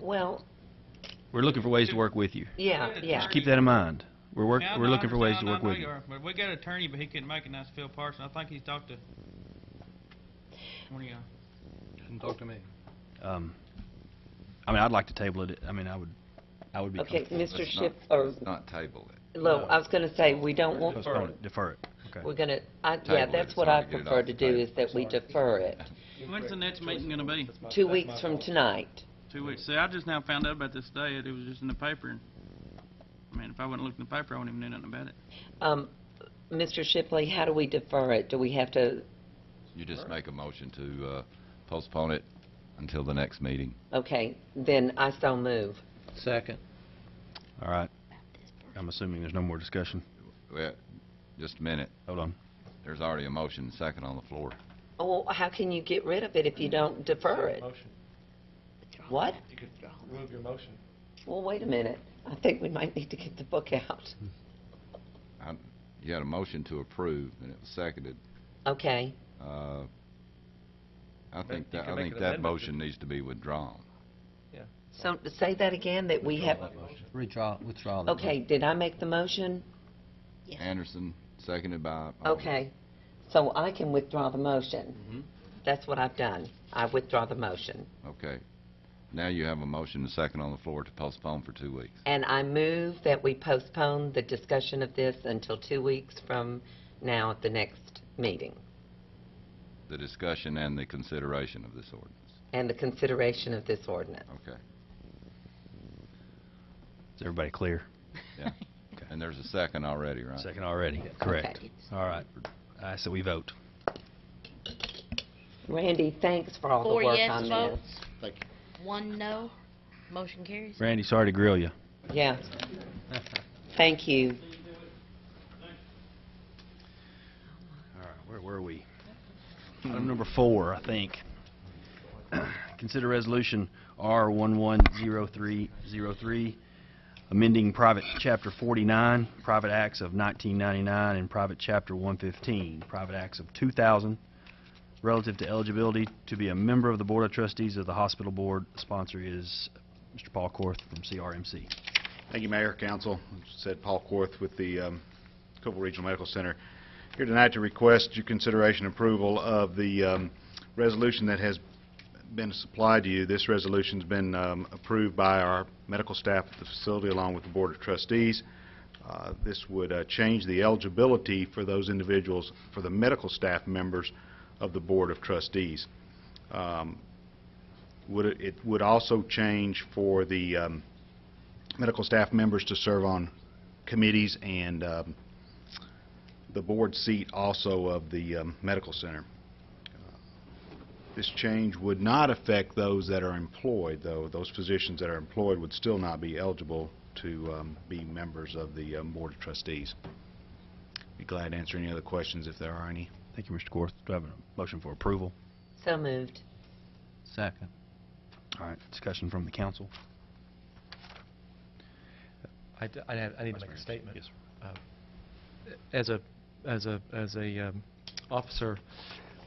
Well, We're looking for ways to work with you. yeah, Good. yeah. Just keep that in mind. We're work, Yeah, we're no, I looking for ways to understand. I work know with you you. are. But we got an attorney, but he couldn't make it, and that's Phil Parson. I think he's talked to one of y'all. Didn't talk to me. Um, I mean, I'd like to table it. I mean, I would, I would be Okay, comfortable. Mr. Let's Schiff, not- or, let's Not table it. Lo, I was gonna say, we don't want, Postpone it, defer it. Okay. we're gonna, I, Table yeah, it. that's It's what I hard to get it prefer off to the do, table. is that we defer it. When's the next meeting gonna be? Two weeks from tonight. Two weeks. See, I just now found out about this today. It was just in the paper. and I mean, if I wouldn't looked in the paper, I wouldn't even know nothing about it. Um, Mr. Shipley, how do we defer it? Do we have to, You just make a motion to uh, postpone it until the next meeting. okay, then I so move. Second. All right. I'm assuming there's no more discussion. Well, Just a minute. Hold on. There's already a motion and second on the floor. Oh, Well, how can you get rid of it if you don't defer it? Motion. What? You could move your motion. Well, wait a minute. I think we might need to get the book out. I- You had a motion to approve, and it was seconded. Okay, Uh, I think you that, can I make think an that amendment. motion needs to be withdrawn. so say that again, that we have, Redraw, withdraw the okay, did I make the motion? Anderson, seconded by... uh, Alder. Okay, so I can withdraw the motion. That's what I've done. I withdraw the motion. Okay. Now you have a motion and second on the floor to postpone for two weeks. And I move that we postpone the discussion of this until two weeks from now at the next meeting The discussion and the consideration of this ordinance. and the consideration of this ordinance. Okay. Is everybody clear? Yeah. And there's a second already, right? Second already. Correct. Okay. All right. All right, so we vote. Randy, thanks for all the Four work on this. yes votes, one no, motion carries. Randy, sorry to grill you. Yeah. Thank you. All right, where were we? Item number four, I think. Consider resolution R110303, amending private chapter 49, private acts of 1999, and private chapter 115, private acts of 2000, relative to eligibility to be a member of the Board of Trustees of the Hospital Board. Sponsor is Mr. Paul Korth from CRMC. Thank you, Mayor, Council. Said Paul Korth with the um, Cobble Regional Medical Center. Here tonight to request your consideration and approval of the um, resolution that has been supplied to you. This resolution's been um, approved by our medical staff at the facility along with the Board of Trustees. Uh, This would uh, change the eligibility for those individuals, for the medical staff members of the Board of Trustees. Um, Would It it would also change for the um, medical staff members to serve on committees and um, the board seat also of the um, medical center. This change would not affect those that are employed, though. Those physicians that are employed would still not be eligible to um, be members of the um, Board of Trustees. Be glad to answer any other questions if there are any. Thank you, Mr. Korth. Do I have a motion for approval? So moved. Second. All right, discussion from the council. I, d- I have- I need to Vice make a Mayor. statement. Yes, sir. Uh, As a, as a, as a um, officer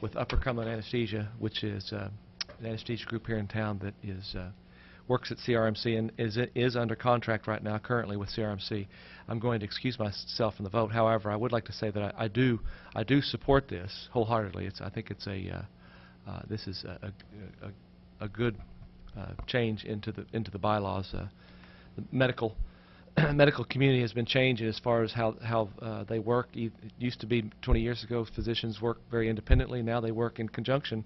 with Upper Cumberland Anesthesia, which is uh, an anesthesia group here in town that is, uh, works at CRMC and is, is under contract right now currently with CRMC, I'm going to excuse myself from the vote. However, I would like to say that I I do, I do support this wholeheartedly. It's, I think it's a, uh, uh, this is a, a- a, a good uh, change into the, into the bylaws. uh, The medical medical community has been changing as far as how, how uh, they work. E- It used to be 20 years ago, physicians worked very independently. Now they work in conjunction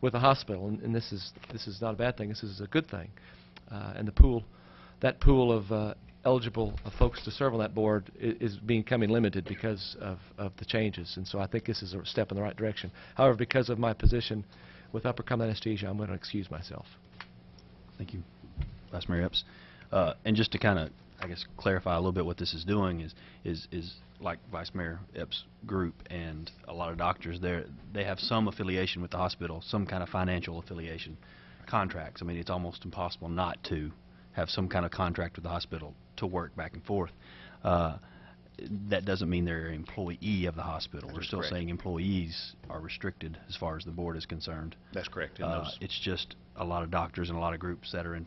with the hospital, and, and this is this is not a bad thing. This is a good thing. Uh, and the pool, that pool of uh, eligible uh, folks to serve on that board i- is becoming limited because of, of the changes. And so I think this is a step in the right direction. However, because of my position with upper common anesthesia, I'm going to excuse myself. Thank you, Vice Mayor Epps. Uh, And just to kind of, I guess, clarify a little bit what this is doing is, is, is like Vice Mayor Epps' group and a lot of doctors there, they have some affiliation with the hospital, some kind of financial affiliation, contracts. I mean, it's almost impossible not to have some kind of contract with the hospital to work back and forth. Uh, That doesn't mean they're an employee of the hospital. We're still Correct. saying employees are restricted as far as the board is concerned. That's correct. in Uh, those- It's just a lot of doctors and a lot of groups that are in